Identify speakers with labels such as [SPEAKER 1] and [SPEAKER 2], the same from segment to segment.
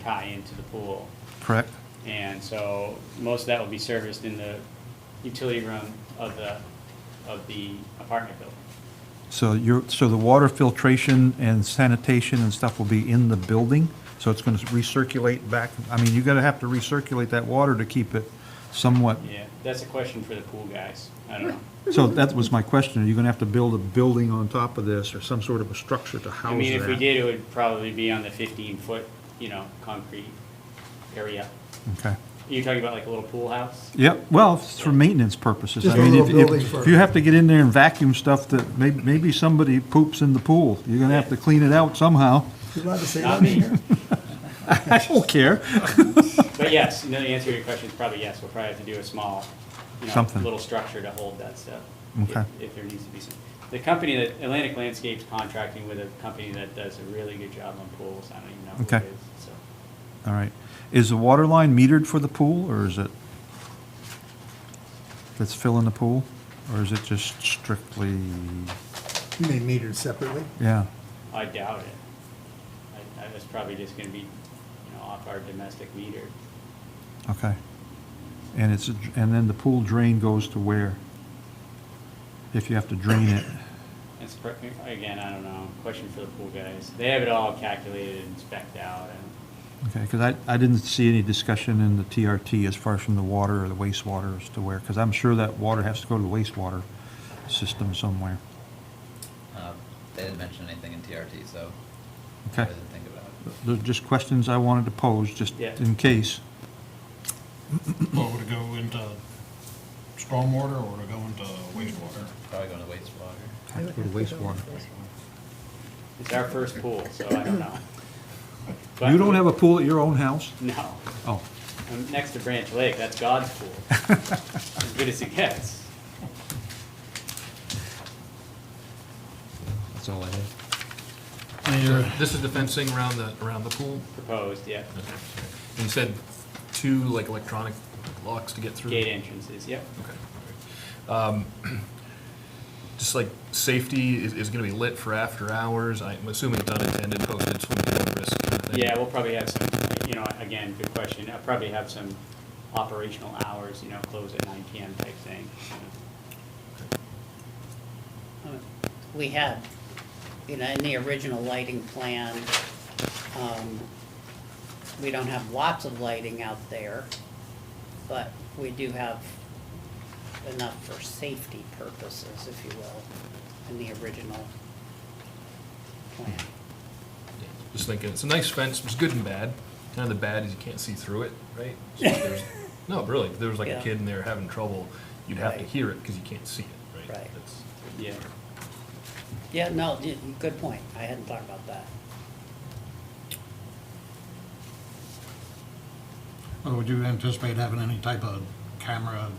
[SPEAKER 1] tie into the pool.
[SPEAKER 2] correct?
[SPEAKER 1] And so most of that will be serviced in the utility room of the, of the apartment building.
[SPEAKER 2] So you're, so the water filtration and sanitation and stuff will be in the building? So it's going to recirculate back, I mean, you're going to have to recirculate that water to keep it somewhat.
[SPEAKER 1] Yeah, that's a question for the pool guys. I don't know.
[SPEAKER 2] So
[SPEAKER 1] Mm-hmm.
[SPEAKER 2] that was my question, are you going to have to build a building on top of this or some sort of a structure to house
[SPEAKER 1] I
[SPEAKER 2] that?
[SPEAKER 1] mean, if we did, it would probably be on the fifteen-foot, you know, concrete area.
[SPEAKER 2] Okay.
[SPEAKER 1] You're talking about like a little pool house?
[SPEAKER 2] Yep, well, it's for maintenance purposes. I
[SPEAKER 3] Just a
[SPEAKER 2] mean, if-
[SPEAKER 3] little building
[SPEAKER 2] if-
[SPEAKER 3] for-
[SPEAKER 2] If you have to get in there and vacuum stuff that, may- maybe somebody poops in the pool, you're gonna have to clean it out somehow.
[SPEAKER 3] You're allowed to say
[SPEAKER 1] Not
[SPEAKER 3] that
[SPEAKER 1] me.
[SPEAKER 3] in here?
[SPEAKER 2] I don't care.
[SPEAKER 1] But yes, no, the answer to your question is probably yes, we'll probably have to do a small, you know,
[SPEAKER 2] Something.
[SPEAKER 1] little structure to hold that stuff.
[SPEAKER 2] Okay.
[SPEAKER 1] If if there needs to be some. The company that, Atlantic Landscapes contracting with a company that does a really good job on pools, I don't even know who it
[SPEAKER 2] Okay.
[SPEAKER 1] is, so.
[SPEAKER 2] All right. Is the water line metered for the pool, or is it, that's filling the pool? Or is it just strictly,
[SPEAKER 3] You may meter it separately.
[SPEAKER 2] yeah,
[SPEAKER 1] I doubt it. I, I was probably just gonna be, you know, off our domestic meter.
[SPEAKER 2] okay. And it's, a- and then the pool drain goes to where? If you have to drain it,
[SPEAKER 1] It's, pr- again, I don't know, question for the pool guys. They have it all calculated and specked out and,
[SPEAKER 2] okay, because I, I didn't see any discussion in the TRT as far as from the water or the wastewater as to where, because I'm sure that water has to go to the wastewater system somewhere.
[SPEAKER 4] Uh, They didn't mention anything in TRT, so I
[SPEAKER 2] Okay.
[SPEAKER 4] didn't think about it.
[SPEAKER 2] They're just questions I wanted to pose, just
[SPEAKER 1] Yeah.
[SPEAKER 2] in case.
[SPEAKER 5] Well, would it go into stormwater or would it go into wastewater?
[SPEAKER 4] Probably going to wastewater.
[SPEAKER 2] Have to go to wastewater.
[SPEAKER 1] it's our first pool, so I don't know. But-
[SPEAKER 2] You don't have a pool at your own house?
[SPEAKER 1] No.
[SPEAKER 2] Oh,
[SPEAKER 1] I'm next to Branch Lake, that's God's pool. As good as it gets.
[SPEAKER 2] that's all I have.
[SPEAKER 6] So This is the fencing around the, around the pool?
[SPEAKER 1] Proposed, yeah.
[SPEAKER 6] And you said two, like, electronic locks to get through?
[SPEAKER 1] Gate entrances, yep.
[SPEAKER 6] Okay. Um, Just like, safety is, is gonna be lit for after hours, I'm assuming it's unattended, posted, so we can risk kind of thing?
[SPEAKER 1] Yeah, we'll probably have some, you know, again, good question. I'll probably have some operational hours, you know, close at nine PM type thing.
[SPEAKER 7] we had, you know, in the original lighting plan, um, we don't have lots of lighting out there, but we do have enough for safety purposes, if you will, in the original plan.
[SPEAKER 6] Just thinking, it's a nice fence, it's good and bad. Kind of the bad is you can't see through it, right? So if there's- No, really, if there was like a
[SPEAKER 7] Yeah.
[SPEAKER 6] kid in there having trouble, you'd have to
[SPEAKER 7] Right.
[SPEAKER 6] hear it, because you can't see it, right?
[SPEAKER 7] Right.
[SPEAKER 6] That's-
[SPEAKER 1] Yeah,
[SPEAKER 7] Yeah, no, y- good point. I hadn't thought about that.
[SPEAKER 5] Or would you anticipate having any type of camera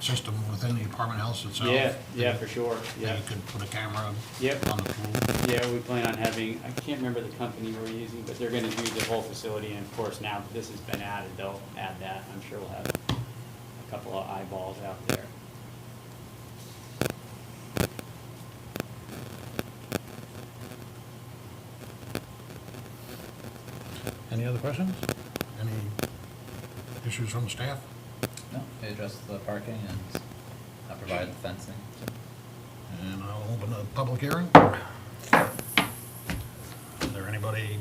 [SPEAKER 5] system within the apartment house itself?
[SPEAKER 1] yeah, yeah, for sure, yeah.
[SPEAKER 5] That you could put a camera
[SPEAKER 1] Yep.
[SPEAKER 5] on the pool?
[SPEAKER 1] Yeah, we plan on having, I can't remember the company we're using, but they're gonna do the whole facility, and of course, now that this has been added, they'll add that. I'm sure we'll have a couple of eyeballs out there.
[SPEAKER 5] Any other questions? Any issues from the staff?
[SPEAKER 4] No, they addressed the parking and I provided the fencing.
[SPEAKER 5] And I'll open the public hearing. Is there anybody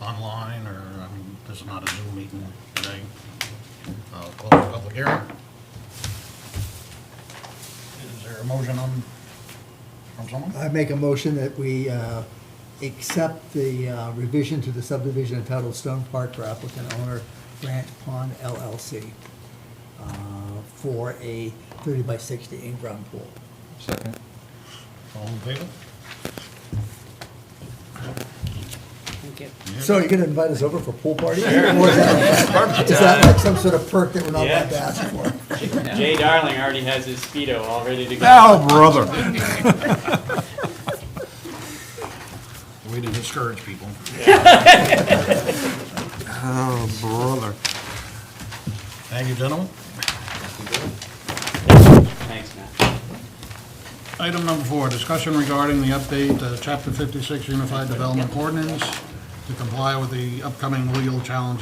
[SPEAKER 5] online, or, I mean, this is not a Zoom meeting today? I'll close the public hearing. Is there a motion on, from someone?
[SPEAKER 3] I make a motion that we uh, accept the uh, revision to the subdivision entitled Stone Park for applicant owner Grant Pond LLC uh, for a 30 by 60 in-ground pool.
[SPEAKER 2] Second.
[SPEAKER 5] All in favor?
[SPEAKER 7] Thank you.
[SPEAKER 3] So you're going to invite us over for a pool party? Or is that- is that like some sort of perk that we're not allowed to ask for?
[SPEAKER 1] Jay Darling already has his Speedo all ready to go.
[SPEAKER 2] Oh, brother.
[SPEAKER 5] Way to discourage people.
[SPEAKER 2] Oh, brother.
[SPEAKER 5] Thank you, gentlemen.
[SPEAKER 1] Thanks, Matt.
[SPEAKER 5] Item number four, discussion regarding the update, uh, Chapter 56 Unified Development Ordinance to comply with the upcoming legal challenge